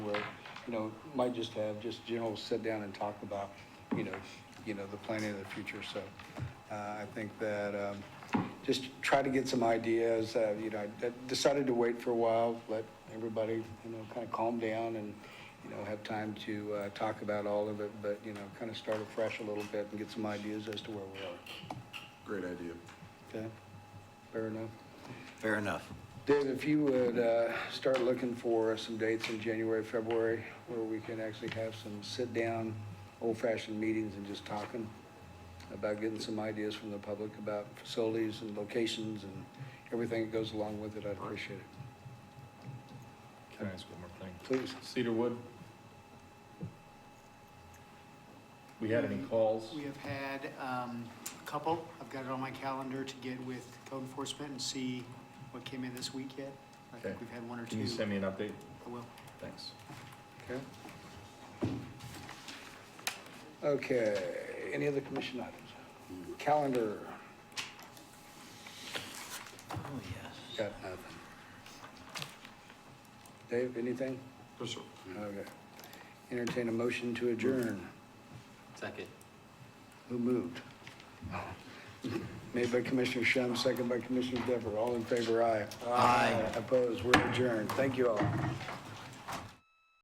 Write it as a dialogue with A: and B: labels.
A: you know, might just have just general sit down and talk about, you know, you know, the planning of the future. So uh, I think that um, just try to get some ideas, uh, you know, I d- decided to wait for a while, let everybody, you know, kind of calm down and, you know, have time to uh, talk about all of it, but, you know, kind of start afresh a little bit and get some ideas as to where we are.
B: Great idea.
A: Okay? Fair enough?
C: Fair enough.
A: Dave, if you would uh, start looking for some dates in January, February, where we can actually have some sit-down, old-fashioned meetings and just talking about getting some ideas from the public about facilities and locations and everything that goes along with it, I'd appreciate it.
D: Can I ask one more thing?
A: Please.
D: Cedarwood? We had any calls?
E: We have had um, a couple. I've got it on my calendar to get with code enforcement and see what came in this week yet. I think
D: Okay.
E: we've had one or two.
D: Can you send me an update?
E: I will.
D: Thanks.
A: Okay. Okay, any other commission items? Calendar,
C: Oh, yes.
A: got nothing. Dave, anything?
B: Yes, sir.
A: Okay. Entertain a motion to adjourn.
F: Second.
A: Who moved? Made by Commissioner Shum, second by Commissioner Dever. All in favor, aye.
C: Aye.
A: Opposed, we're adjourned. Thank you all.